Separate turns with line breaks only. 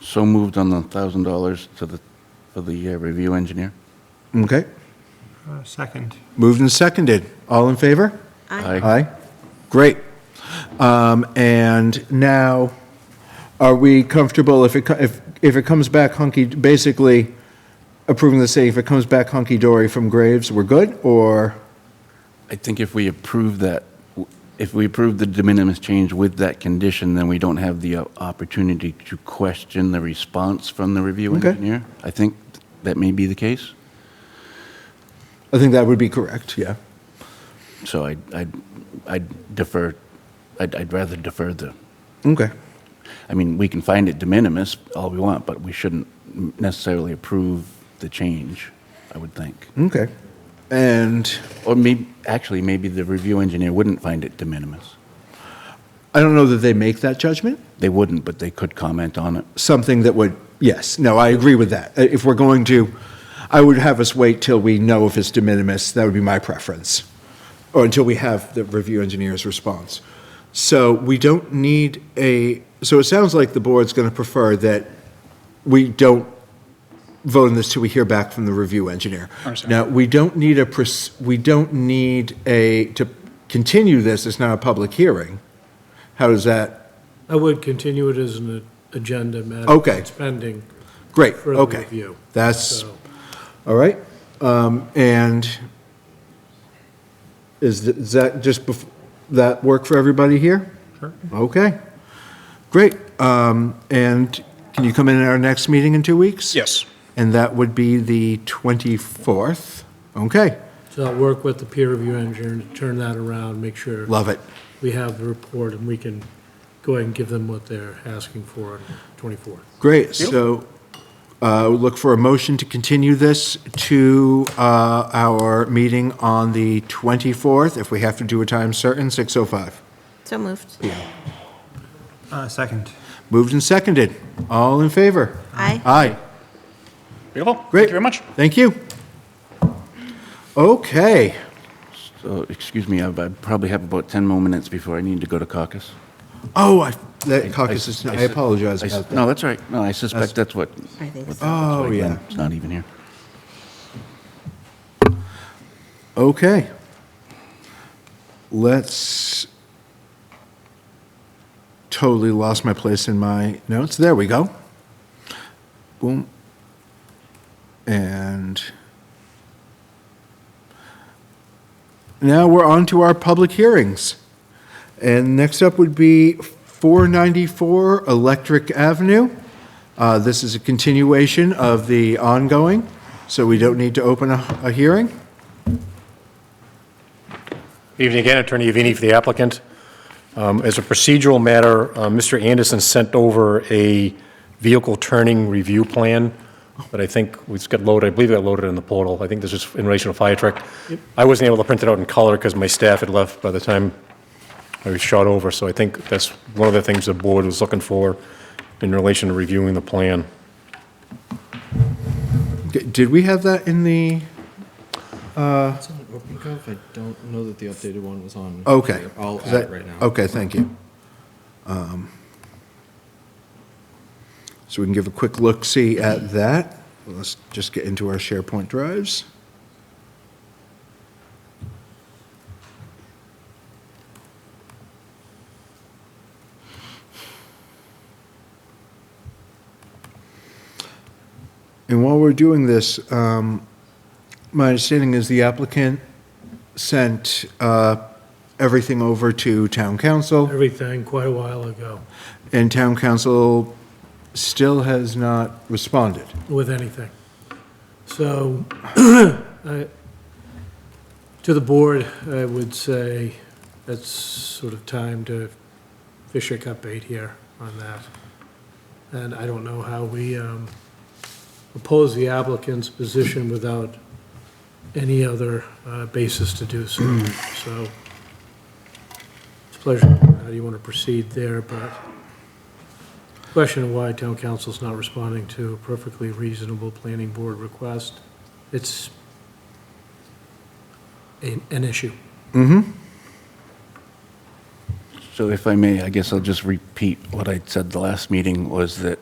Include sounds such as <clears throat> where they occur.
So moved on the thousand dollars to the, for the uh, review engineer.
Okay.
Uh, Second.
Moved and seconded. All in favor?
Aye.
Great. Um, And now, are we comfortable if it, co- if, if it comes back hunky, basically approving the city, if it comes back hunky-dory from Graves, we're good? Or,
I think if we approve that, if we approve the de minimis change with that condition, then we don't have the uh, opportunity to question the response from the review
Okay.
engineer. I think that may be the case.
I think that would be correct, yeah.
So I, I, I'd defer, I'd, I'd rather defer the,
Okay.
I mean, we can find it de minimis all we want, but we shouldn't necessarily approve the change, I would think.
Okay. And
Or maybe, actually, maybe the review engineer wouldn't find it de minimis.
I don't know that they make that judgment.
They wouldn't, but they could comment on it.
something that would, yes, no, I agree with that. Uh, If we're going to, I would have us wait till we know if it's de minimis, that would be my preference, or until we have the review engineer's response. So we don't need a, so it sounds like the board's going to prefer that we don't vote on this till we hear back from the review engineer.
Understand.
Now, we don't need a, pres- we don't need a, to continue this, it's not a public hearing. How does that,
I would continue it as an agenda matter.
Okay.
It's pending.
great,
Further
okay.
review.
That's,
So,
All right, um, and is, th- is that just, bef- that work for everybody here? Sure. Okay, great. Um, and can you come in at our next meeting in two weeks?
Yes.
And that would be the 24th? Okay,
so I'll work with the peer review engineer to turn that around, make sure
love it.
we have the report and we can go ahead and give them what they're asking for on the 24th.
Great, so, uh, look for a motion to continue this to, uh, our meeting on the 24th, if we have to do a time certain, 6:05.
So moved.
Uh, Second.
Moved and seconded. All in favor?
Aye.
Aye.
Beautiful. Thank
Great.
you very much.
Thank you. Okay.
So, excuse me, I I probably have about 10 more minutes before I need to go to caucus.
Oh, I, that caucus is, I
sus-
apologize
I sus-
about that.
No, that's all right. No, I suspect that's what.
I think
what- that's
so.
why
Oh, yeah.
Glenn's not even here.
Okay. Let's, totally lost my place in my notes. There we go. Boom. And now we're on to our public hearings. And next up would be 494 Electric Avenue. Uh, This is a continuation of the ongoing, so we don't need to open a a hearing.
Evening again, Attorney Avini for the applicant. Um, As a procedural matter, uh, Mr. Anderson sent over a vehicle turning review plan, but I think it's got loaded, I believe it got loaded in the portal. I think this is in relation to fire truck. I wasn't able to print it out in color because my staff had left by the time I was shot over, so I think that's one of the things the board was looking for in relation to reviewing the plan.
D- Did we have that in the,
It's on OpenGov. I don't know that the updated one was on.
okay.
here. I'll
Is
add
that-
it right now.
Okay, thank you. Um, So we can give a quick look-see at that. Let's just get into our SharePoint drives. And while we're doing this, um, my understanding is the applicant sent uh, everything over to town council,
Everything quite a while ago
and town council still has not responded.
with anything. So <clears throat> I- to the board, I would say it's sort of time to fish a cup bait here on that. And I don't know how we um, oppose the applicant's position without any other uh, basis to do so. So it's a pleasure. How do you want to proceed there? But question of why town council's not responding to a perfectly reasonable planning board request, it's an, an issue.
So if I may, I guess I'll just repeat what I said the last meeting was that